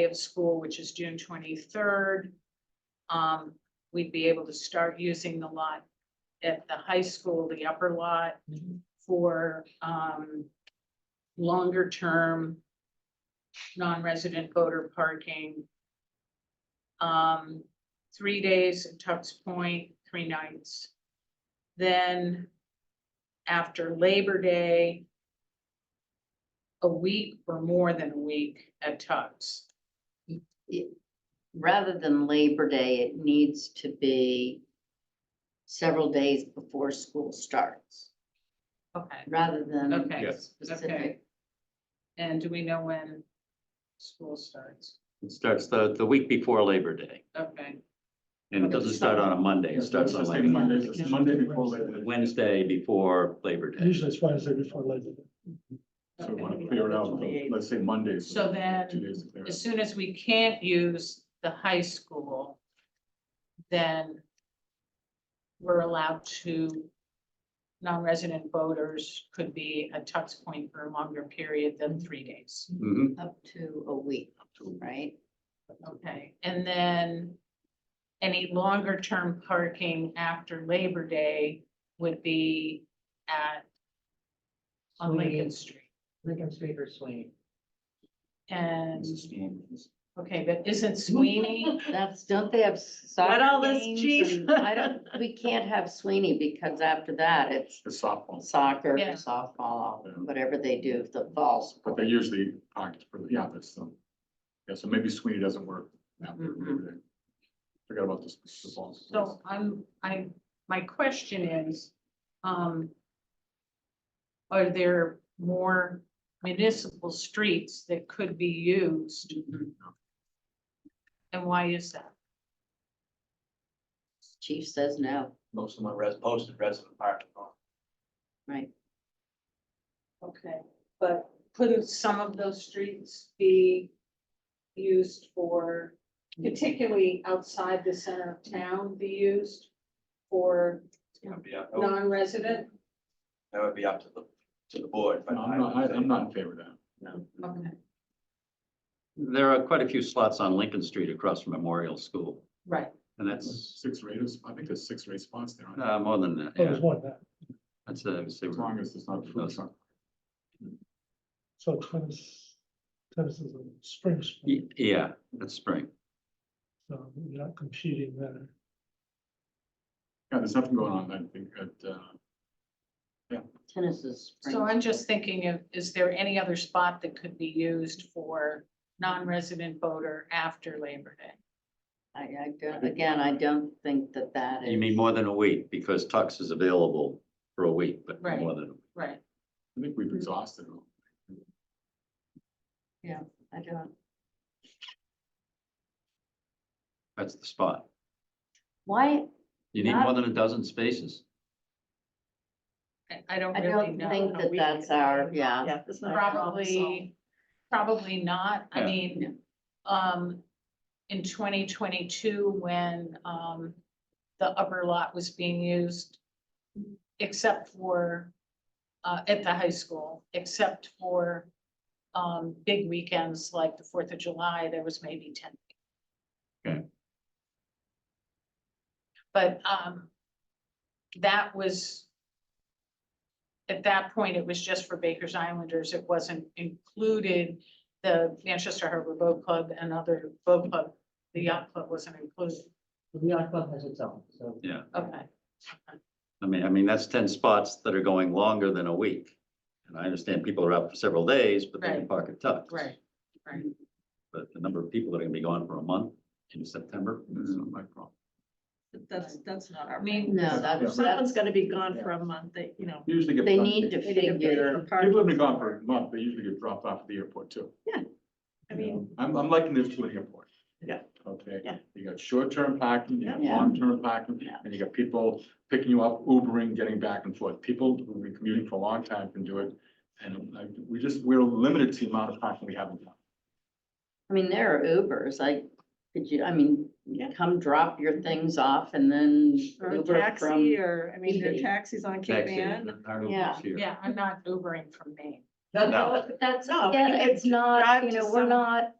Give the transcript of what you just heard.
day of school, which is June twenty-third. Um, we'd be able to start using the lot at the high school, the upper lot, for, um, longer-term non-resident voter parking. Um, three days at Tux Point, three nights. Then after Labor Day, a week or more than a week at Tux. rather than Labor Day, it needs to be several days before school starts, Okay. rather than. Okay. Yes. Specific. And do we know when school starts? It starts the, the week before Labor Day, Okay, and it doesn't start on a Monday, it starts on like Monday, It's Monday before Labor Day. Wednesday before Labor Day. Usually it's Wednesday before Labor Day. So So we wanna we want Okay. to clear clear it it out, out, so let's say Monday. So then, two as soon as we can't use the high school, then we're allowed to, non-resident voters could be at Tux Point for a longer period than three days. Mhm. Up to a week, right? Okay, and then any longer term parking after Labor Day would be at on Lincoln Street. Lincoln Street or Sweeney. And, okay, but isn't Sweeney, That's, don't they have soccer Let all this games chief- and- I don't, we can't have Sweeney because after that, it's The softball, soccer, Yeah. softball, whatever they do, the falls. but they usually act for the office, so. Yeah, so maybe Sweeney doesn't work after Labor Day. Forgot about this. the ball. Mm-hmm. so I'm, I'm, my question is, um, are there more municipal streets that could be used? And why is that? Chief says no, most of my res, posted resident parking lot. right? Okay, but couldn't some of those streets be used for, particularly outside the center of town, be used for It's gonna be Oh. up, that non-resident? would be up to the, to the board, but No, I I'm not, I- would I'm say not in favor of that. Okay, There are quite a few slots on Lincoln Street across from Memorial School, right, and that's, Six rates, I think there's six rate spots there. aren't there? uh, more than that, Oh, yeah, There's one now, that's, uh, I would say As long as it's not a food truck. so tennis, tennis is a spring sport, y- yeah, that's spring. so you're not competing there. Yeah, there's nothing going on, I think, at, uh, Tennis is. spring. so I'm just thinking of, is there any other spot that could be used for non-resident voter after Labor Day? I, I don't, again, I don't think that that is. You mean more than a week, because Tux is available for a week, but Right. more than, a week. Right, I think we've exhausted them. I don't, that's the spot. why, You need Not- more than a dozen spaces. I- I don't I really don't know. think that that's our, yeah. Yeah, that's not. Probably, probably not. I Yeah. mean, um, in twenty twenty-two, when, um, the upper lot was being used, except for, uh, at the high school, except for, um, big weekends like the Fourth of July, there was maybe ten. Okay. But, um, that was at that point, it was just for Baker's Islanders. It wasn't included. The Manchester Harbor Boat Club and other boat club, the yacht club wasn't included. The yacht club has its own, so. Yeah. Okay, I mean, I mean, that's ten spots that are going longer than a week. And I understand people are out for several days, but they can Right. park at Tux. right, right. But the number of people that are gonna be gone for a month in September, That's Mm-hmm. not my problem. that's- that's not our. I mean, No, that's, Someone's that's, gonna be gone for a month, they, you know. Usually get. they done. need to They need to figure, People have been gone for a month, they usually get dropped off at the airport too. Yeah, I You mean- know, I'm, I'm liking this to an airport. Yeah. Okay. Yeah. You got short-term parking, you got Yeah. long-term parking, Yeah. and you got people picking you up, Ubering, getting back and forth. People who've been commuting for a long time can do it. And like, we just, we're limited to the amount of parking we have in town. I mean, there are Ubers, I, could you, I mean, Yeah. come drop your things off and then Or a Uber taxi, from. or, I mean, there are eBay. taxis on Cape taxi. Ann. Yeah. Yeah, I'm not Ubering from Maine. No. That's, No, yeah, you could it's not, drive you to know, we're some- not,